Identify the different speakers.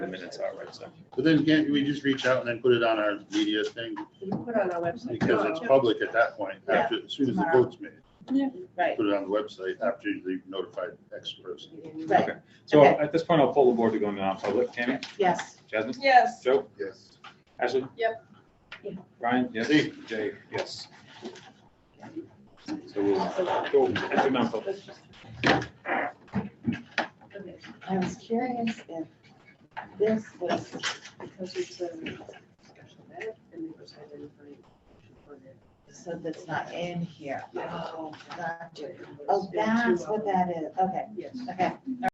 Speaker 1: the minutes are, right, so.
Speaker 2: But then can't we just reach out and then put it on our media thing?
Speaker 3: You put on our website.
Speaker 2: Because it's public at that point, after, as soon as the vote's made.
Speaker 3: Right,
Speaker 2: Put it on the website after you've notified X person.
Speaker 3: right,
Speaker 1: So
Speaker 3: Okay.
Speaker 1: at this point, I'll pull the board to go into non-public. Tammy,
Speaker 3: yes.
Speaker 1: Jasmine,
Speaker 4: Yes.
Speaker 1: Joe,
Speaker 2: Yes.
Speaker 1: Ashley?
Speaker 4: Yep.
Speaker 3: Yeah.
Speaker 1: Ryan, yes.
Speaker 2: Steve.
Speaker 1: Jay, yes. So we'll go into non-public.
Speaker 3: I was curious if this was because it's a special ed and they decided to find
Speaker 5: So that's not in here. Oh, gotcha.
Speaker 3: it.
Speaker 5: Oh, that's what that is. Okay,
Speaker 3: Yes.
Speaker 5: okay.